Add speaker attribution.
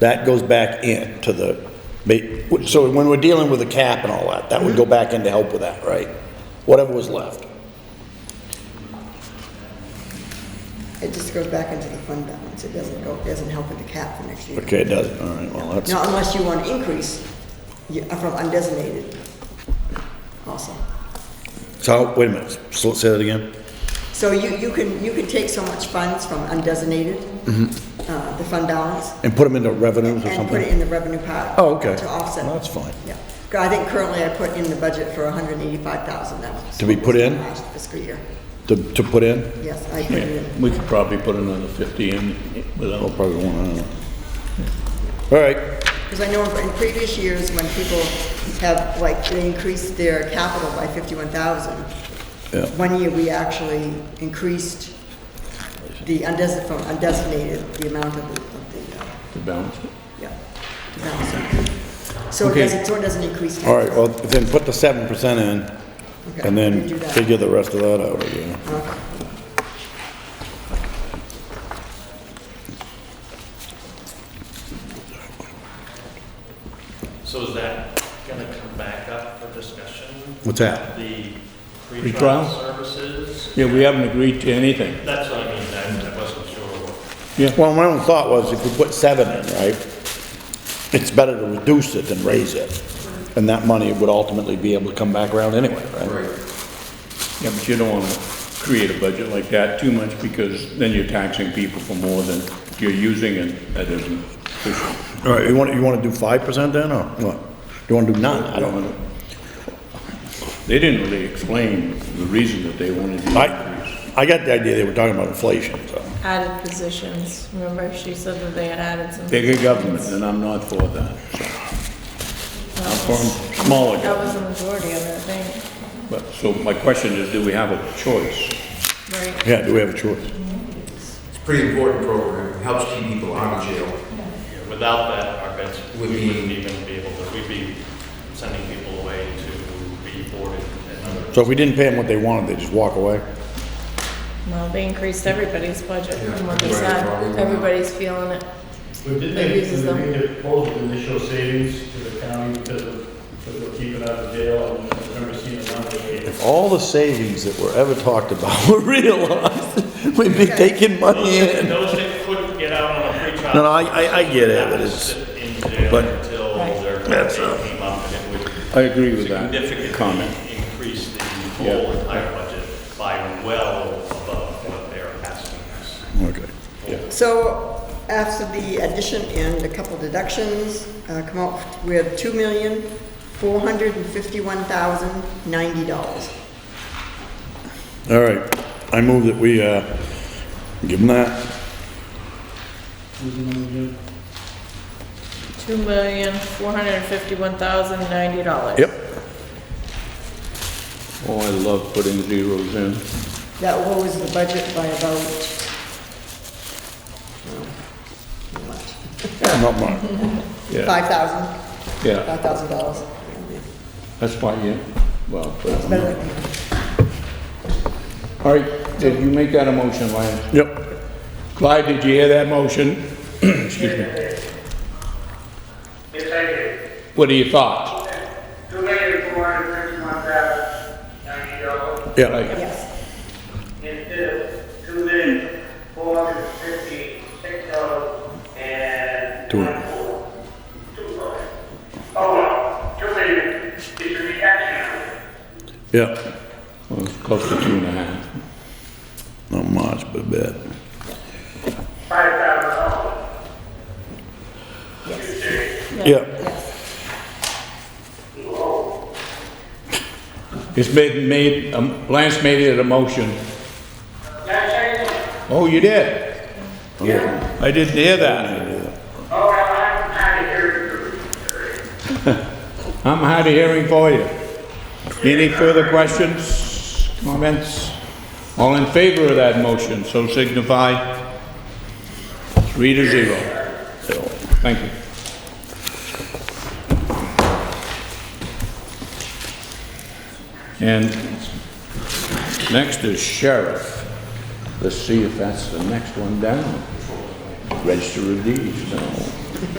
Speaker 1: That goes back in to the, ma- so when we're dealing with the cap and all that, that would go back in to help with that, right? Whatever was left.
Speaker 2: It just goes back into the fund balance. It doesn't go, it doesn't help with the cap for next year.
Speaker 1: Okay, it does, all right, well, that's,
Speaker 2: Now, unless you want to increase you- from undesignated also.
Speaker 1: so, wait a minute, so say that again?
Speaker 2: So you, you can, you can take so much funds from undesignated, uh, the fund balance,
Speaker 1: And put them into revenues or
Speaker 2: and put it
Speaker 1: Mm-hmm. something?
Speaker 2: in the revenue part.
Speaker 1: Oh, okay.
Speaker 2: To offset.
Speaker 1: Well, That's fine.
Speaker 2: Yeah. I think currently I put in the budget for 185,000 that was.
Speaker 1: To be put in?
Speaker 2: Last fiscal year.
Speaker 1: To, to put in?
Speaker 2: Yes, I put it in.
Speaker 3: We could probably put another 50 in
Speaker 1: I'll
Speaker 3: without,
Speaker 1: probably want, I don't know. All right,
Speaker 2: Because I know in previous years, when people have, like, they increased their capital by 51,000,
Speaker 1: Yeah.
Speaker 2: one year we actually increased the undesignated, from undesignated, the amount of the, of the, uh,
Speaker 3: to balance it.
Speaker 2: yeah. the balance. So it
Speaker 3: Okay.
Speaker 2: doesn't, so it doesn't increase.
Speaker 1: all right, well, then put the seven percent in,
Speaker 2: Okay,
Speaker 1: and
Speaker 2: we
Speaker 1: then
Speaker 2: do that.
Speaker 1: figure the rest of that out again.
Speaker 2: Okay.
Speaker 4: So is that gonna come back up for discussion?
Speaker 1: What's that?
Speaker 4: The
Speaker 3: Pretrial?
Speaker 4: pretrial services?
Speaker 3: Yeah, we haven't agreed to anything.
Speaker 4: That's what I mean, I I wasn't sure what.
Speaker 1: Well, my own thought was if we put seven in, right, it's better to reduce it than raise it. And that money would ultimately be able to come back around anyway, right?
Speaker 3: Yeah, but you don't want to create a budget like that too much because then you're taxing people for more than you're using and that isn't efficient.
Speaker 1: All right, you want, you want to do five percent then, or what? You want to do none? I don't know.
Speaker 3: They didn't really explain the reason that they wanted the increase.
Speaker 1: I, I got the idea they were talking about inflation, so.
Speaker 5: added positions. Remember, she said that they had added some.
Speaker 3: Bigger government, and I'm not for that. I'm for smaller
Speaker 5: That
Speaker 3: government.
Speaker 5: was the majority of it, I think,
Speaker 3: But, so my question is, do we have a choice?
Speaker 5: right?
Speaker 1: Yeah, do we have a choice?
Speaker 6: It's a pretty important program, It helps keep people out of jail.
Speaker 4: yeah, Without that, our beds, we
Speaker 6: Would be-
Speaker 4: wouldn't even be able to, we'd be sending people away to be boarded and other.
Speaker 1: So if we didn't pay them what they wanted, they just walk away?
Speaker 5: Well, they increased everybody's budget from what they
Speaker 6: Yeah,
Speaker 5: said.
Speaker 6: probably not.
Speaker 5: Everybody's feeling it.
Speaker 7: We did
Speaker 5: That
Speaker 7: make,
Speaker 5: uses
Speaker 7: we
Speaker 5: them.
Speaker 7: made a proposal to initial savings to the county because of, because we're keeping out of jail and I've never seen a number like it.
Speaker 1: All the savings that were ever talked about were realized, we'd be taking money in.
Speaker 4: Those that couldn't get out on a pretrial.
Speaker 1: No, no, I- I- I get it, but it's-
Speaker 4: Sit in jail
Speaker 1: but-
Speaker 4: until
Speaker 5: Right.
Speaker 4: their
Speaker 1: That's, uh,
Speaker 4: pay came up and it would.
Speaker 3: I agree with that comment.
Speaker 4: significantly increase the whole
Speaker 3: Yeah.
Speaker 4: entire budget by well above what they're asking us.
Speaker 1: Okay.
Speaker 2: So after the addition and a couple deductions, uh, come out with two million, four hundred and fifty-one thousand, ninety dollars.
Speaker 1: All right, I move that we, uh, give them that.
Speaker 5: Two million, four hundred and fifty-one thousand, ninety dollars.
Speaker 1: Yep.
Speaker 3: Oh, I love putting zeros in.
Speaker 2: That lowers the budget by about,
Speaker 1: Not mine.
Speaker 3: Yeah,
Speaker 2: five thousand,
Speaker 3: yeah,
Speaker 2: five thousand dollars.
Speaker 3: that's fine, yeah. Well, but-
Speaker 2: Better than-
Speaker 3: all right, did you make that a motion, Lance?
Speaker 1: Yep,
Speaker 3: Clyde, did you hear that motion? Excuse me.
Speaker 8: Yes, I did.
Speaker 3: What are your thoughts?
Speaker 8: Two million four hundred fifty-one thousand ninety dollars
Speaker 1: yeah,
Speaker 3: Right.
Speaker 2: Yes,
Speaker 8: instead of two million four hundred fifty-six dollars and
Speaker 1: Two.
Speaker 8: four. Two dollars. Oh, well, two million is the action.
Speaker 1: yeah.
Speaker 3: Well, it's close to two and a half.
Speaker 1: Not much, but a bit.
Speaker 8: Five thousand dollars.
Speaker 1: Yeah,
Speaker 3: It's made, made, um, Lance made it a motion.
Speaker 8: That's it.
Speaker 3: Oh, you did? Yeah. I didn't hear that.
Speaker 8: Oh, well, I'm out of here.
Speaker 3: I'm hard of hearing for you. Any further questions, comments? All in favor of that motion, so signify. Three to zero. Thank you. And next is sheriff. Let's see if that's the next one down. Register of deeds, no.